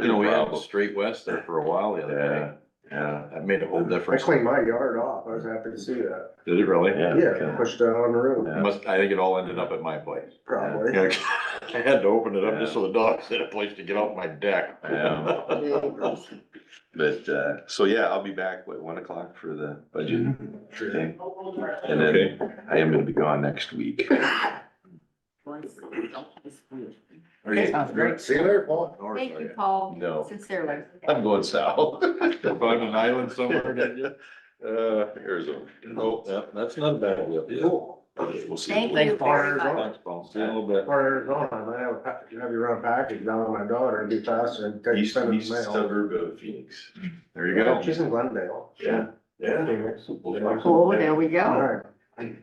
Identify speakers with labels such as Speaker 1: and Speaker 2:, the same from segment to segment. Speaker 1: You know, we had
Speaker 2: problem.
Speaker 1: straight west there for a while the
Speaker 2: Yeah,
Speaker 1: other
Speaker 2: yeah,
Speaker 1: day. That made a whole
Speaker 3: I
Speaker 1: difference.
Speaker 3: cleaned my yard off, I was happy to see that,
Speaker 1: Did it really?
Speaker 2: yeah.
Speaker 3: yeah, pushed it on the road,
Speaker 2: Yeah.
Speaker 1: Must, I think it all ended up at my place.
Speaker 3: probably.
Speaker 1: Yeah, I had to open it up just so the dogs had a place to get off my deck.
Speaker 2: Yeah. But, uh, so yeah, I'll be back, what, one o'clock for the budget thing? And
Speaker 1: Mm-hmm. Okay.
Speaker 2: then I am gonna be gone next week.
Speaker 1: Are you-
Speaker 4: Sounds great.
Speaker 3: See you later, Paul.
Speaker 1: North,
Speaker 5: Thank
Speaker 1: are
Speaker 5: you,
Speaker 1: you?
Speaker 5: Paul.
Speaker 2: No.
Speaker 5: Sincerely.
Speaker 2: I'm going south.
Speaker 1: You're on an island somewhere, didn't you?
Speaker 2: Uh, Arizona.
Speaker 1: Oh, yeah, that's not a bad. deal.
Speaker 3: Cool.
Speaker 2: We'll see.
Speaker 5: Thank
Speaker 3: Thanks,
Speaker 5: you
Speaker 3: Paul.
Speaker 5: very much.
Speaker 1: Thanks, Paul. See you in a little
Speaker 3: Or Arizona, I might have a, pack- have your own package down on my daughter and be faster and take
Speaker 2: East,
Speaker 3: send it
Speaker 2: east
Speaker 3: in the mail.
Speaker 2: suburb of Phoenix.
Speaker 1: bit. There you go.
Speaker 3: She's in Glendale.
Speaker 2: Yeah, yeah.
Speaker 3: Phoenix.
Speaker 5: Oh, there we go.
Speaker 3: Alright,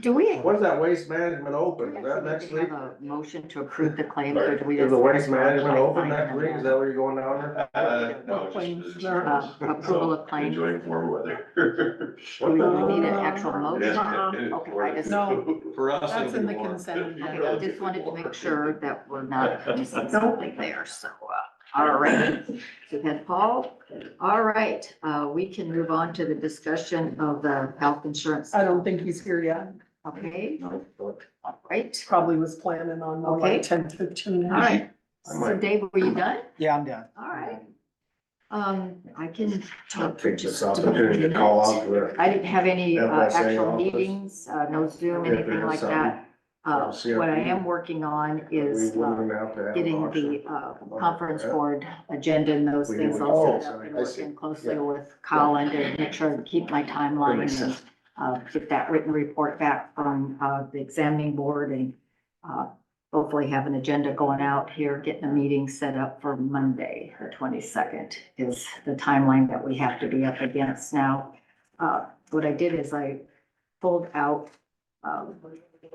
Speaker 5: Do we?
Speaker 3: when's that waste management
Speaker 5: do we
Speaker 3: open, is that
Speaker 5: actually
Speaker 3: next
Speaker 5: have
Speaker 3: week?
Speaker 5: a Motion to approve the claim or do we?
Speaker 3: Is
Speaker 5: just-
Speaker 3: the waste management open next week, is that where you're going down there?
Speaker 2: Uh, no, just-
Speaker 5: Uh, Approval of claim. Do
Speaker 2: Enjoying warm weather.
Speaker 5: we really need an actual motion?
Speaker 2: Yeah, it is
Speaker 5: Okay, I
Speaker 2: warm.
Speaker 5: just,
Speaker 4: No.
Speaker 1: For us,
Speaker 4: That's
Speaker 1: it'll
Speaker 4: in
Speaker 1: be
Speaker 4: the
Speaker 1: warm.
Speaker 4: consent agenda.
Speaker 5: I just wanted to make sure that we're not missing something there, so, uh, all right. So then, Paul, all right, uh, we can move on to the discussion of the health insurance.
Speaker 4: I don't think he's here yet.
Speaker 5: Okay, all right.
Speaker 4: Probably was planning on more
Speaker 5: Okay.
Speaker 4: like ten fifteen.
Speaker 5: All right,
Speaker 3: I
Speaker 5: so
Speaker 3: might-
Speaker 5: Dave, were you done?
Speaker 4: Yeah, I'm done.
Speaker 5: All right. Um, I can
Speaker 3: I'll
Speaker 5: talk for
Speaker 3: take this
Speaker 5: just a
Speaker 3: opportunity to
Speaker 5: minute.
Speaker 3: call out for it.
Speaker 5: I didn't have any uh,
Speaker 3: FSA
Speaker 5: actual
Speaker 3: office.
Speaker 5: meetings, uh, no Zoom,
Speaker 3: If
Speaker 5: anything
Speaker 3: there's
Speaker 5: like that. Uh,
Speaker 3: something, I'll
Speaker 5: what I
Speaker 3: see if-
Speaker 5: am working on
Speaker 3: We
Speaker 5: is uh,
Speaker 3: wouldn't have to have an
Speaker 5: getting the
Speaker 3: auction.
Speaker 5: uh, conference board agenda and those
Speaker 3: We
Speaker 5: things
Speaker 3: would-
Speaker 5: all
Speaker 3: oh,
Speaker 5: set up and
Speaker 3: I see.
Speaker 5: working closely
Speaker 3: Yeah.
Speaker 5: with Colin to make sure to keep my
Speaker 3: That
Speaker 5: timeline
Speaker 3: makes
Speaker 5: and
Speaker 3: sense.
Speaker 5: uh, get that written report back from uh, the examining board and uh, hopefully have an agenda going out here, getting a meeting set up for Monday, the twenty-second is the timeline that we have to be up against now. Uh, What I did is I pulled out um,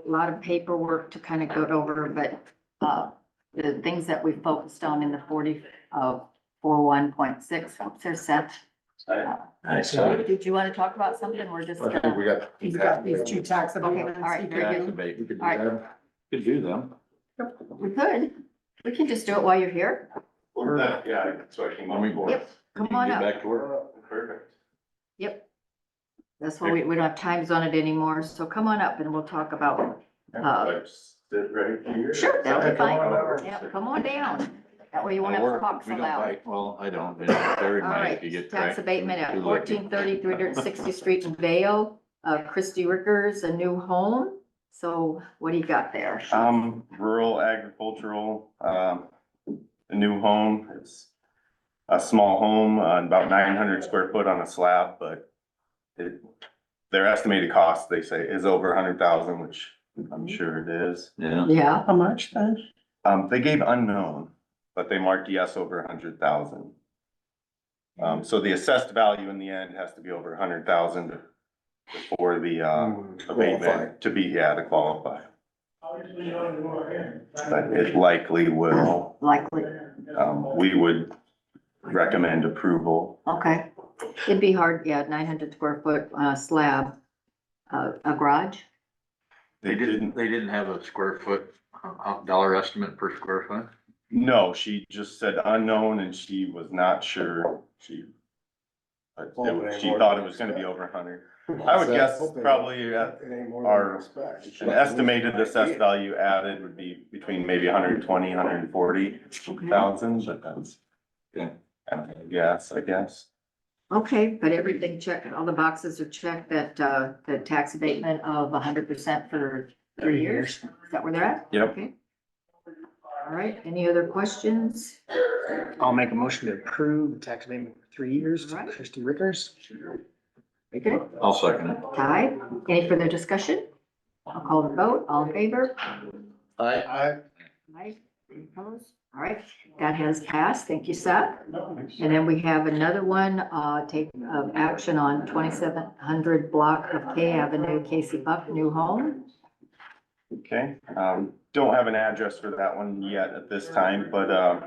Speaker 5: a lot of paperwork to kind of go over, but uh, the things that we focused on in the forty, uh, four one point six, there's Seth.
Speaker 2: Nice.
Speaker 5: Did you want to talk about something? We're just
Speaker 3: I think
Speaker 5: gonna,
Speaker 3: we got.
Speaker 4: He's got these two tax abatements.
Speaker 5: all right,
Speaker 4: he
Speaker 5: very
Speaker 4: can
Speaker 5: good.
Speaker 4: do.
Speaker 1: Activate.
Speaker 3: We could do
Speaker 5: All right.
Speaker 3: that.
Speaker 1: Could do them.
Speaker 5: we could, we can just do it while you're here.
Speaker 2: Yeah, so I came on board.
Speaker 5: Yep, come
Speaker 1: You
Speaker 5: on
Speaker 1: get
Speaker 5: up.
Speaker 1: Back to work.
Speaker 2: Perfect.
Speaker 5: Yep. That's why we, we don't have times on it anymore, so come on up and we'll talk about, uh,
Speaker 2: Like, Sit right here.
Speaker 5: sure, that'll
Speaker 3: Yeah,
Speaker 5: be
Speaker 3: come
Speaker 5: fine.
Speaker 3: on over.
Speaker 5: Yeah, come on down. That way you won't
Speaker 1: I
Speaker 5: have to
Speaker 1: work.
Speaker 5: talk so
Speaker 1: We don't
Speaker 5: loud.
Speaker 1: bite. Well, I don't. It's very
Speaker 5: All
Speaker 1: nice
Speaker 5: right,
Speaker 1: if you get
Speaker 5: tax
Speaker 1: cracked.
Speaker 5: abatement at
Speaker 1: Too lucky.
Speaker 5: 1430 360th street in Vale. Uh, Christie Rickers, a new home. So what do you got there?
Speaker 6: Um, rural agricultural, um, a new home, it's a small home, uh, about nine hundred square foot on a slab, but it, their estimated cost, they say, is over a hundred thousand, which I'm sure it is.
Speaker 1: Yeah.
Speaker 5: Yeah,
Speaker 4: How much then?
Speaker 6: Um, they gave unknown, but they marked yes over a hundred thousand. Um, so the assessed value in the end has to be over a hundred thousand for the,
Speaker 1: Mm,
Speaker 6: um,
Speaker 2: Uh,
Speaker 3: Qualified.
Speaker 6: abatement to be, yeah, to qualify. But it likely will,
Speaker 5: likely.
Speaker 6: um, we would recommend approval.
Speaker 5: Okay. It'd be hard, yeah, nine hundred square foot, uh, slab, uh, a garage.
Speaker 1: They didn't, they didn't have a square foot, uh, dollar estimate per square foot?
Speaker 6: No, she just said unknown and she was not sure, she. but it was- She thought it was gonna be over a hundred, I would guess probably, uh,
Speaker 3: It ain't more than
Speaker 6: our-
Speaker 3: we expect.
Speaker 6: an estimated assessed value added would be between maybe 120, 140 thousand, but that's.
Speaker 1: Okay.
Speaker 6: kind of a Guess, I guess,
Speaker 5: Okay, but everything checked, all the boxes are checked, that, uh, the tax abatement of hundred percent for three years, is that where they're at?
Speaker 6: Yep.
Speaker 5: Okay. All right, any other questions?
Speaker 7: I'll make a motion to approve the tax abatement for three years to
Speaker 5: Right.
Speaker 7: Christie Rickers.
Speaker 5: Okay,
Speaker 1: I'll second it.
Speaker 5: Aye, any further discussion? I'll call the vote, all in favor?
Speaker 3: I,
Speaker 5: Aye, Any opposed? All right, that has passed, thank you, Seth. And then we have another one, uh, take, uh, action on twenty-seven hundred block of K Avenue, Casey Buck, new home.
Speaker 6: okay, um, don't have an address for that one yet at this time, but, um.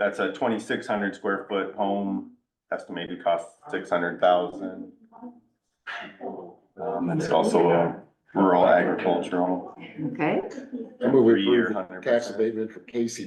Speaker 6: That's a twenty-six hundred square foot home, estimated cost six hundred thousand. Um, it's also a rural agricultural,
Speaker 5: Okay.
Speaker 3: I move we
Speaker 6: three-year,
Speaker 3: approve
Speaker 6: hundred
Speaker 3: tax
Speaker 6: percent.
Speaker 3: abatement for Casey